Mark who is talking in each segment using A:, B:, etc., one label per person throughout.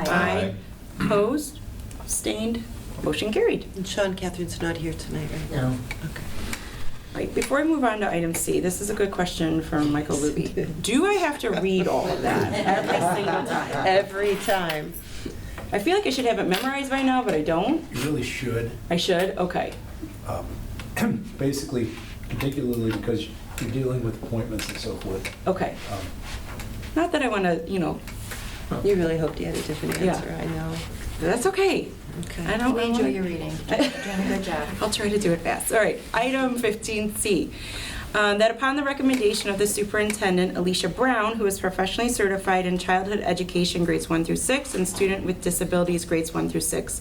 A: Aye.
B: Opposed? Abstained? Motion carried.
C: And Sean Catherine's not here tonight, right?
A: No.
C: Okay.
B: All right, before I move on to item C, this is a good question from Michael Luby. Do I have to read all of that every single time?
C: Every time.
B: I feel like I should have it memorized by now, but I don't.
D: You really should.
B: I should? Okay.
D: um, Basically, particularly because you're dealing with appointments and so forth.
B: Okay.
D: um,
B: Not that I want to, you know,
C: You really hoped you had a different
B: Yeah.
C: answer, I know.
B: but that's okay.
C: Okay.
B: I don't
A: We enjoy
B: wanna-
A: your reading. You're doing a good job.
B: I'll try to do it fast. All right, item 15C. um, That upon the recommendation of the superintendent, Alicia Brown, who is professionally certified in childhood education grades 1 through 6 and student with disabilities grades 1 through 6,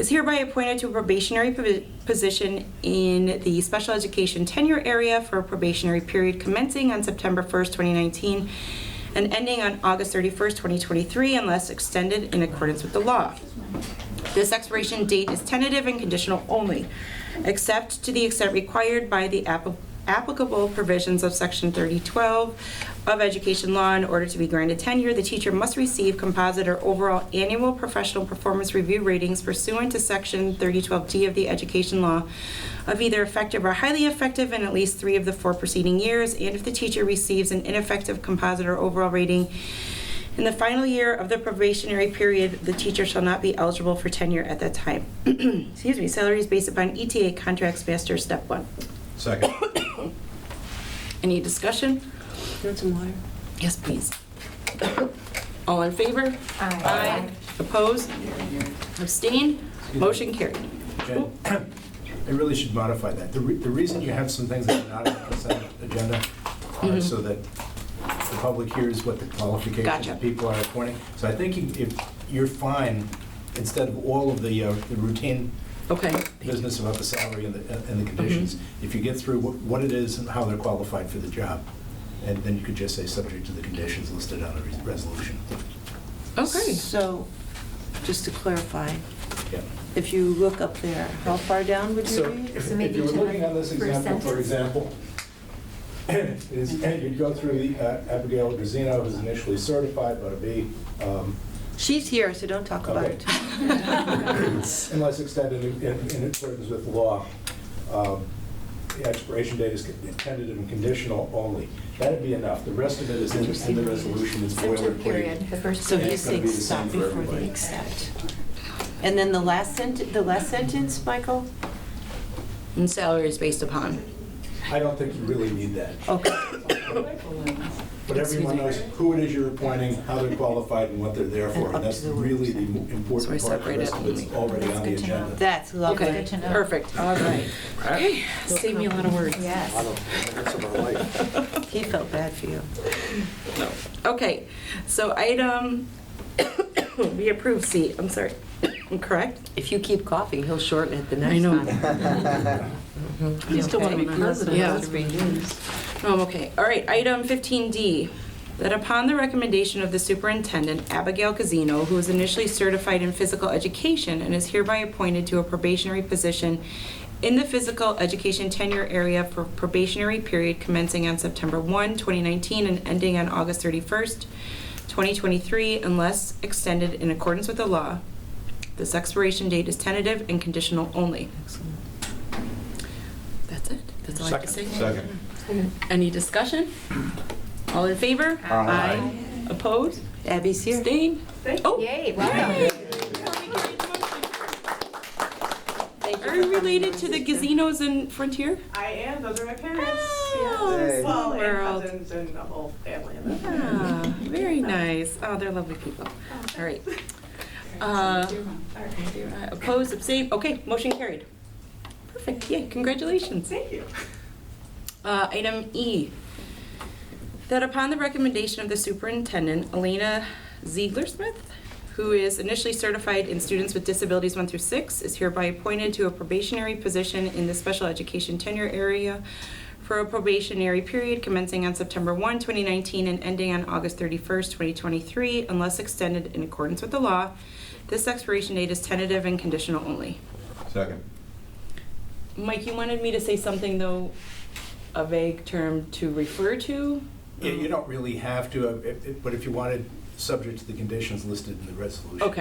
B: is hereby appointed to a probationary posi- position in the special education tenure area for a probationary period commencing on September 1st, 2019, and ending on August 31st, 2023, unless extended in accordance with the law. This expiration date is tentative and conditional only, except to the extent required by the app- applicable provisions of Section 3012 of Education Law. In order to be granted tenure, the teacher must receive composite or overall annual professional performance review ratings pursuant to Section 3012D of the Education Law of either effective or highly effective in at least three of the four preceding years, and if the teacher receives an ineffective composite or overall rating, in the final year of the probationary period, the teacher shall not be eligible for tenure at that time. Excuse me, salary is based upon ETA contracts master step one.
E: Second.
B: Any discussion?
C: You want some water?
B: Yes, please. All in favor?
A: Aye.
B: Opposed? Abstained? Motion carried.
D: Jen, I really should modify that. The re- the reason you have some things that are not on the consent agenda are so that the public hears what the qualifications
B: Gotcha.
D: of people are appointing. So I think you- if, you're fine, instead of all of the uh, the routine
B: Okay,
D: business about the salary and the and the conditions, if you get through what what it is and how they're qualified for the job, and then you could just say, subject to the conditions listed on the re- resolution.
B: okay.
C: So, just to clarify,
D: Yeah.
C: if you look up there, how far down would you
E: So
C: read?
E: if
A: So
E: if
A: maybe
E: you were
A: to
E: looking
A: have
E: on this
A: first
E: example, for
A: sentence.
E: example, is, you'd go through the, uh, Abigail Grazino, who's initially certified, but a B, um,
C: She's here, so don't talk about
E: Okay.
C: it.
E: unless extended in- in in accordance with law. Um, The expiration date is tentative and conditional only. That'd be enough. The rest of it is in in the resolution, it's
A: Center
E: boilerplate.
A: period, the first
C: So
E: And
C: he's
E: it's gonna
C: saying
E: be the
C: stop
E: same for
C: before the
E: everybody.
C: accept. And then the last sent, the last sentence, Michael?
B: And salary is based upon.
E: I don't think you really need that.
C: Okay,
E: But everyone knows who it is you're appointing, how they're qualified, and what they're there for. And that's really the mo-
B: So we
E: important part. The
B: separate
E: rest
B: it
E: of it's
B: only.
E: already
A: That's
E: on the
A: good to know.
E: agenda.
C: that's lovely.
B: Okay,
A: Good to know.
B: perfect, all right. Okay, save me a lot of words.
A: Yes.
C: He felt bad for you.
B: Okay, so item, we approve C, I'm sorry, correct?
F: If you keep coughing, he'll shorten it the
B: I
F: next
B: know.
F: time.
B: You still want to be president. Yeah. Um, okay, all right, item 15D, that upon the recommendation of the superintendent, Abigail Casino, who is initially certified in physical education and is hereby appointed to a probationary position in the physical education tenure area for probationary period commencing on September 1, 2019 and ending on August 31st, 2023, unless extended in accordance with the law. This expiration date is tentative and conditional only. That's it. That's all I have to say.
E: Second.
B: Any discussion? All in favor? Aye. Opposed?
C: Abby's here.
B: Abstained? Oh,
A: Yay, welcome.
B: Are you related to the gazinos in Frontier?
G: I am. Those are my parents.
B: Oh,
G: Yeah.
B: Hey.
G: Well, and
B: world.
G: cousins and a whole family. of them.
B: Ah, Very nice. Oh, they're lovely people. All right. Uh, Opposed, abstained? Okay, motion carried. Perfect, yay, congratulations.
G: Thank you.
B: Uh, Item E, that upon the recommendation of the superintendent, Elena Ziegler-Smith, who is initially certified in students with disabilities 1 through 6, is hereby appointed to a probationary position in the special education tenure area for a probationary period commencing on September 1, 2019, and ending on August 31st, 2023, unless extended in accordance with the law. This expiration date is tentative and conditional only.
E: Second.
B: Mike, you wanted me to say something, though, a vague term to refer to?
D: Yeah, you don't really have to, uh, if- if- but if you wanted subject to the conditions listed in the resolution.
B: Okay.